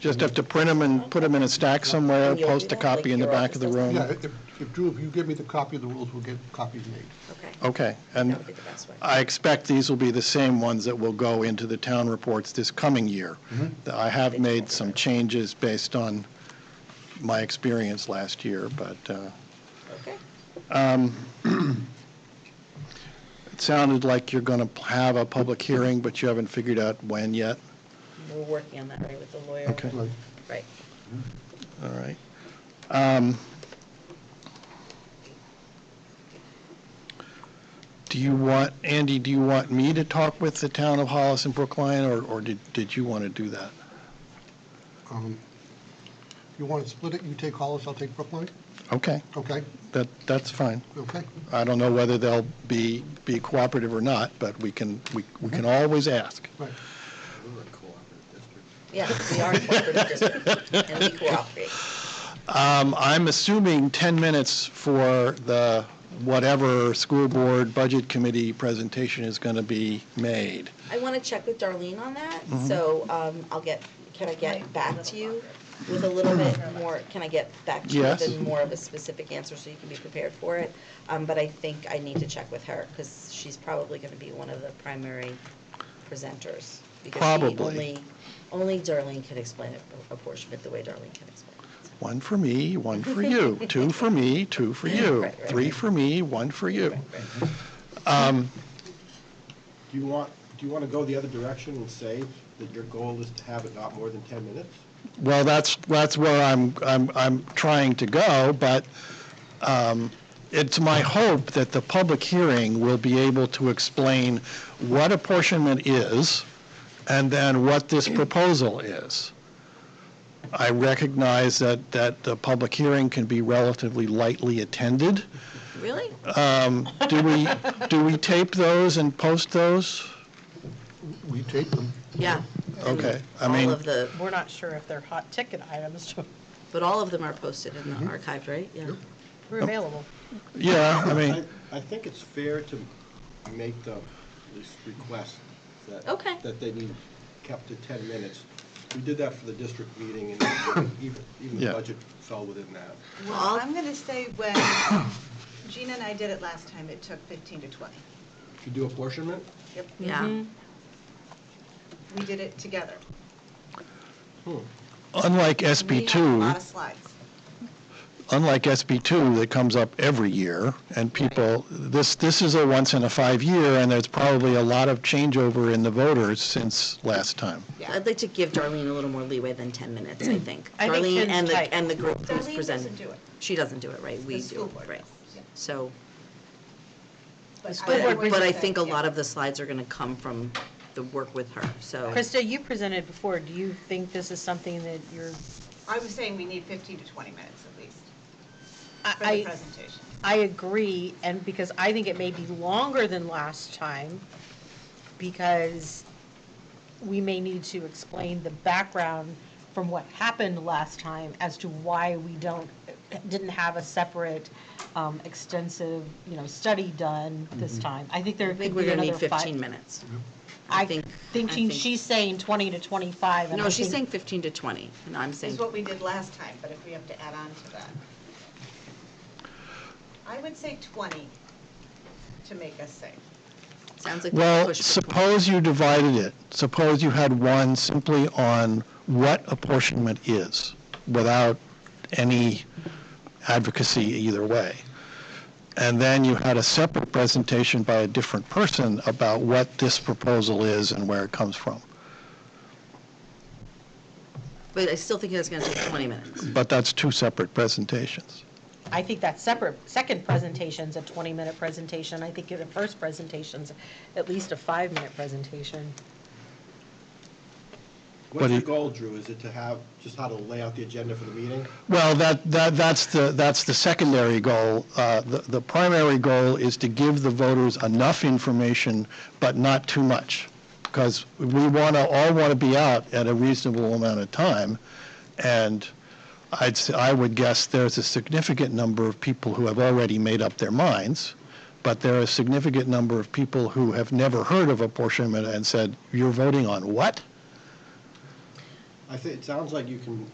Just have to print them and put them in a stack somewhere, post a copy in the back of the Yeah, room. if, if Drew, if you give me the copy of the rules, we'll get copies made. Okay, Okay, that and would be the best way. I expect these will be the same ones that will go into the town reports this coming year. I have made some changes based on my experience last year, but uh, Okay, it sounded like you're going to have a public hearing, but you haven't figured out when yet. we're working on that, right, with the lawyer. Okay. Right. Right. All right. Um, Do you want, Andy, do you want me to talk with the town of Hollis and Brookline, or, or did, did you want to do that? Um, You want to split it, you take Hollis, I'll take Brookline? Okay, Okay, that, that's fine. okay. I don't know whether they'll be, be cooperative or not, but we can, we, we can always ask. Right. Yeah, we are a cooperative district, and we cooperate. Um, I'm assuming 10 minutes for the whatever school board budget committee presentation is going to be made. I want to check with Darlene on that, Mm-hmm. so um, I'll get, can I get back to you with a little bit more, can I get back to you Yes. with a more of a specific answer so you can be prepared for it? Um, But I think I need to check with her, because she's probably going to be one of the primary presenters. because she Probably. only- Only Darlene can explain it, a portion of it the way Darlene can explain it. so. One for me, one for you, two for me, two for you, Right, right, three right. for me, one for you. Do you want, do you want to go the other direction and say that your goal is to have it not more than 10 minutes? Well, that's, that's where I'm, I'm, I'm trying to go, but um, it's my hope that the public hearing will be able to explain what apportionment is and then what this proposal is. I recognize that, that the public hearing can be relatively lightly attended. Really? Do we, do we tape those and post those? We take them. Yeah. Okay, I All mean, of the, We're not sure if they're hot ticket items. but all of them are posted in Mm-hmm. the archive, right? Yeah. Mm-hmm. We're available. yeah, I mean, I think it's fair to make the, this request that. Okay. That they need kept to 10 minutes. We did that for the district meeting, and even, even Yeah. the budget fell within that. Well, I'm going to say when Gina and I did it last time, it took 15 to 20. If you do apportionment, Yep. Ah. Mm. Yeah. We did it together. Hmm. unlike We had a SB2, lot of slides. unlike SB2 that comes up every year, and people, this, this is a once in a five-year, and there's probably a lot of changeover in the voters since last time. Yeah. I'd like to give Darlene a little more leeway than 10 minutes, I think. I think Darlene Ken's and tight. the, and the group who's Darlene presenting. doesn't do it. She doesn't do it, right? We The do school it, board right? does, yeah. So, But but, board but I would say, think a yeah. lot of the slides are going to come from the work with her, so. Krista, you presented before. Do you think this is something that you're, I was saying we need 15 to 20 minutes at least for the I, I- presentation. I agree, and because I think it may be longer than last time, because we may need to explain the background from what happened last time as to why we don't, didn't have a separate um, extensive, you know, study done this time. I think there I think could we're be going to another need five. 15 minutes. I I think- think, I thinking think- she's saying 20 to 25. and I No, she's saying think- 15 to 20, and I'm saying, Is what we did last time, but if we have to add on to that. I would say 20 to make us safe. sounds like. we Well, pushed for 20. suppose you divided it, suppose you had one simply on what apportionment is, without any advocacy either way. And then you had a separate presentation by a different person about what this proposal is and where it comes from. But I still think it's going to take 20 minutes. But that's two separate presentations. I think that separate, second presentation's a 20-minute presentation. I think the first presentation's at least a five-minute presentation. What what's do your you- goal, Drew? Is it to have, just how to lay out the agenda for the meeting? Well, that, that, that's the, that's the secondary goal. Uh, The, the primary goal is to give the voters enough information, but not too much, because we want to, all want to be out at a reasonable amount of time, and I'd, s- I would guess there's a significant number of people who have already made up their minds, but there are a significant number of people who have never heard of apportionment and said, you're voting on what? I think, it sounds like you can